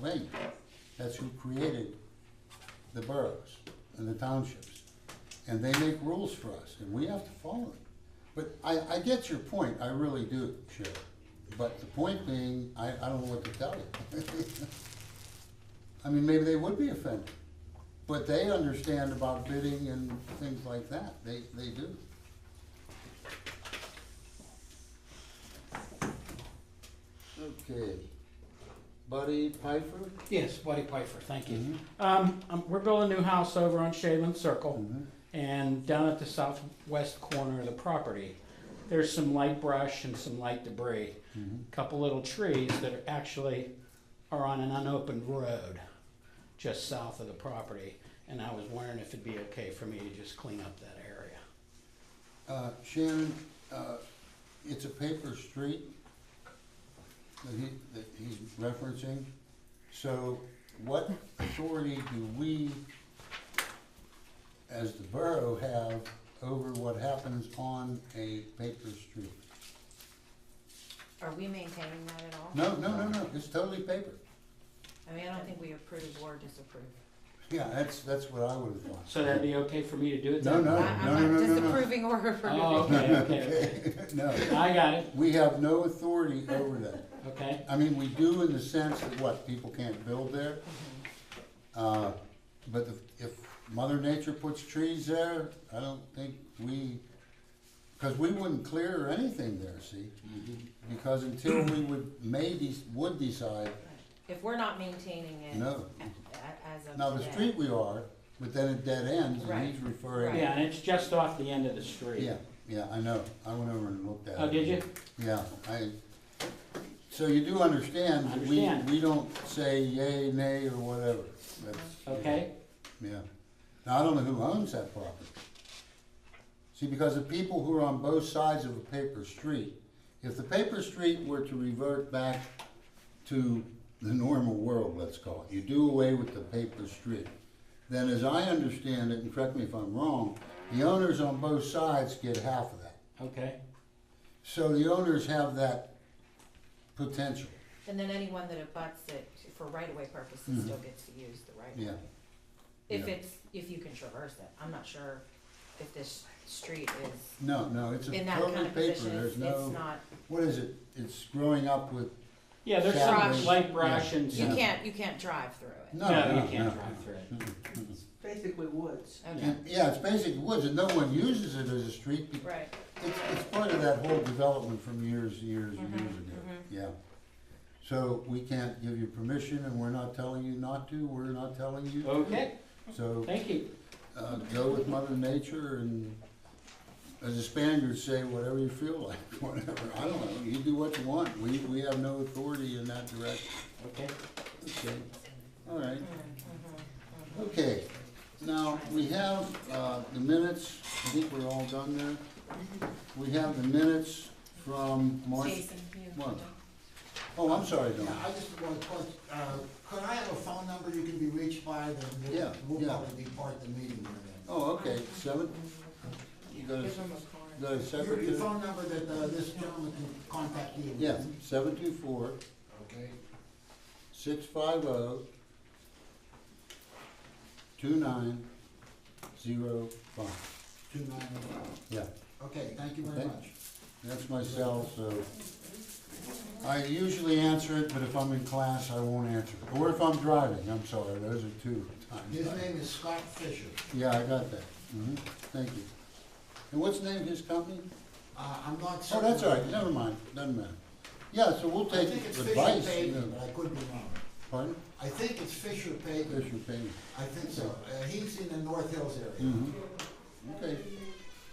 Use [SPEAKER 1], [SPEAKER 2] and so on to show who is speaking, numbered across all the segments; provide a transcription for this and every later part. [SPEAKER 1] Pennsylvania. That's who created the boroughs and the townships. And they make rules for us, and we have to follow them. But I, I get your point, I really do, Sheriff. But the point being, I, I don't know what to tell you. I mean, maybe they would be offended, but they understand about bidding and things like that, they, they do. Okay, Buddy Piper?
[SPEAKER 2] Yes, Buddy Piper, thank you.
[SPEAKER 1] Mhm.
[SPEAKER 2] Um, um, we're building a new house over on Shaven Circle
[SPEAKER 1] Mm-hmm.
[SPEAKER 2] and down at the southwest corner of the property. There's some light brush and some light debris,
[SPEAKER 1] Mm-hmm.
[SPEAKER 2] a couple little trees that are actually are on an unopened road just south of the property. And I was wondering if it'd be okay for me to just clean up that area.
[SPEAKER 1] Uh, Shannon, uh, it's a paper street that he, that he's referencing. So what authority do we, as the borough, have over what happens on a paper street?
[SPEAKER 3] Are we maintaining that at all?
[SPEAKER 1] No, no, no, no, it's totally paper.
[SPEAKER 3] I mean, I don't think we approve or disapprove.
[SPEAKER 1] Yeah, that's, that's what I would have thought.
[SPEAKER 2] So that'd be okay for me to do it
[SPEAKER 1] No,
[SPEAKER 2] then?
[SPEAKER 1] no.
[SPEAKER 3] I-
[SPEAKER 1] no,
[SPEAKER 3] I'm
[SPEAKER 1] no,
[SPEAKER 3] not
[SPEAKER 1] no, no.
[SPEAKER 3] disapproving or
[SPEAKER 2] Oh,
[SPEAKER 3] approving.
[SPEAKER 2] okay, okay, okay.
[SPEAKER 1] No,
[SPEAKER 2] I got it,
[SPEAKER 1] we have no authority over that.
[SPEAKER 2] okay.
[SPEAKER 1] I mean, we do in the sense that what, people can't build there? Uh, but if- if Mother Nature puts trees there, I don't think we, because we wouldn't clear anything there, see?
[SPEAKER 3] Mm-hmm.
[SPEAKER 1] Because until we would, maybe would decide,
[SPEAKER 3] If we're not maintaining it
[SPEAKER 1] no.
[SPEAKER 3] a- a- as of
[SPEAKER 1] Now, the
[SPEAKER 3] today,
[SPEAKER 1] street we are, but then it dead ends, and he's
[SPEAKER 3] Right,
[SPEAKER 1] referring.
[SPEAKER 2] Yeah, and it's just off the end of the street.
[SPEAKER 1] Yeah, yeah, I know, I went over and looked at it.
[SPEAKER 2] Oh, did you?
[SPEAKER 1] Yeah, I, so you do understand, that we,
[SPEAKER 2] Understand.
[SPEAKER 1] we don't say yay, nay, or whatever, that's.
[SPEAKER 2] Okay,
[SPEAKER 1] Yeah. Now, I don't know who owns that property. See, because the people who are on both sides of a paper street, if the paper street were to revert back to the normal world, let's call it, you do away with the paper street, then as I understand it, and correct me if I'm wrong, the owners on both sides get half of that.
[SPEAKER 2] okay.
[SPEAKER 1] So the owners have that potential,
[SPEAKER 3] and then anyone that abuts it for right-of-way purposes still gets to use the right-of-way.
[SPEAKER 1] Mm-hmm. yeah.
[SPEAKER 3] If
[SPEAKER 1] yeah.
[SPEAKER 3] it's, if you can traverse it, I'm not sure if this street is
[SPEAKER 1] No, no, it's a
[SPEAKER 3] in that kind
[SPEAKER 1] totally
[SPEAKER 3] of
[SPEAKER 1] paper,
[SPEAKER 3] position,
[SPEAKER 1] there's
[SPEAKER 3] it's it's
[SPEAKER 1] no,
[SPEAKER 3] not,
[SPEAKER 1] what is it? It's growing up with
[SPEAKER 2] Yeah, there's
[SPEAKER 3] Brush.
[SPEAKER 2] some light brush and
[SPEAKER 3] you
[SPEAKER 1] Yeah.
[SPEAKER 2] some,
[SPEAKER 3] can't, you can't drive through it.
[SPEAKER 1] No,
[SPEAKER 2] no,
[SPEAKER 1] no,
[SPEAKER 2] you can't
[SPEAKER 1] no.
[SPEAKER 2] drive through it.
[SPEAKER 4] It's basically woods.
[SPEAKER 3] Okay,
[SPEAKER 1] And, yeah, it's basically woods, and no one uses it as a street, be-
[SPEAKER 3] right,
[SPEAKER 1] it's, it's part of that whole development from years, and years, and years ago, yeah. So we can't give you permission, and we're not telling you not to, we're not telling you,
[SPEAKER 2] Okay,
[SPEAKER 1] so,
[SPEAKER 2] thank you.
[SPEAKER 1] uh, go with mother nature and, as the Spaniards say, whatever you feel like, whatever, I don't know, you do what you want, we, we have no authority in that direction,
[SPEAKER 2] Okay,
[SPEAKER 1] okay? All right. Okay, now, we have, uh, the minutes, I think we're all done there. We have the minutes from March,
[SPEAKER 3] Jason, you-
[SPEAKER 1] March. oh, I'm sorry, Don.
[SPEAKER 5] Yeah, I just want to, put, uh, could I have a phone number you can be reached by, then
[SPEAKER 1] Yeah,
[SPEAKER 5] we'll, we'll
[SPEAKER 1] yeah.
[SPEAKER 5] probably be part of the meeting here
[SPEAKER 1] Oh, okay, seven? You got a,
[SPEAKER 3] Give him a card.
[SPEAKER 1] got a
[SPEAKER 5] then. Your,
[SPEAKER 1] separate,
[SPEAKER 5] your phone number that, uh, this gentleman can contact you with.
[SPEAKER 1] yeah, seven two four,
[SPEAKER 5] Okay,
[SPEAKER 1] six five oh, two nine, zero five.
[SPEAKER 5] two nine,
[SPEAKER 1] Yeah,
[SPEAKER 5] okay, thank you very
[SPEAKER 1] Thank-
[SPEAKER 5] much.
[SPEAKER 1] that's my cell, so. I usually answer it, but if I'm in class, I won't answer it. Or if I'm driving, I'm sorry, those are two times.
[SPEAKER 5] His name is Scott Fisher,
[SPEAKER 1] Yeah, I got that. hmm thank you. And what's the name of his company?
[SPEAKER 5] uh, I'm not
[SPEAKER 1] Oh,
[SPEAKER 5] certain.
[SPEAKER 1] that's all right, never mind, doesn't matter. Yeah, so we'll
[SPEAKER 5] I
[SPEAKER 1] take
[SPEAKER 5] think it's Fisher
[SPEAKER 1] advice. you
[SPEAKER 5] Paving,
[SPEAKER 1] know.
[SPEAKER 5] but I could be wrong.
[SPEAKER 1] Pardon?
[SPEAKER 5] I think it's Fisher
[SPEAKER 1] There's
[SPEAKER 5] Paving,
[SPEAKER 1] your payment.
[SPEAKER 5] I think so, uh, he's in the North Hills area.
[SPEAKER 1] hmm okay.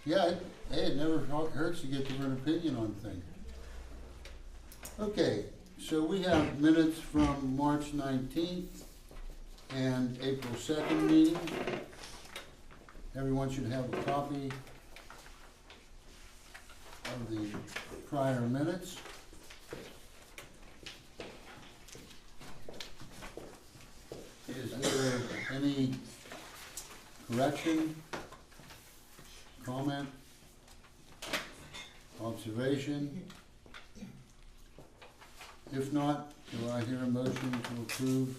[SPEAKER 1] Yeah, it- hey, it never hu- hurts to get different opinion on things. Okay, so we have minutes from March nineteenth and April second meeting. Everyone should have a copy of the prior minutes. Is there any correction, comment, observation? If not, do I hear a motion to approve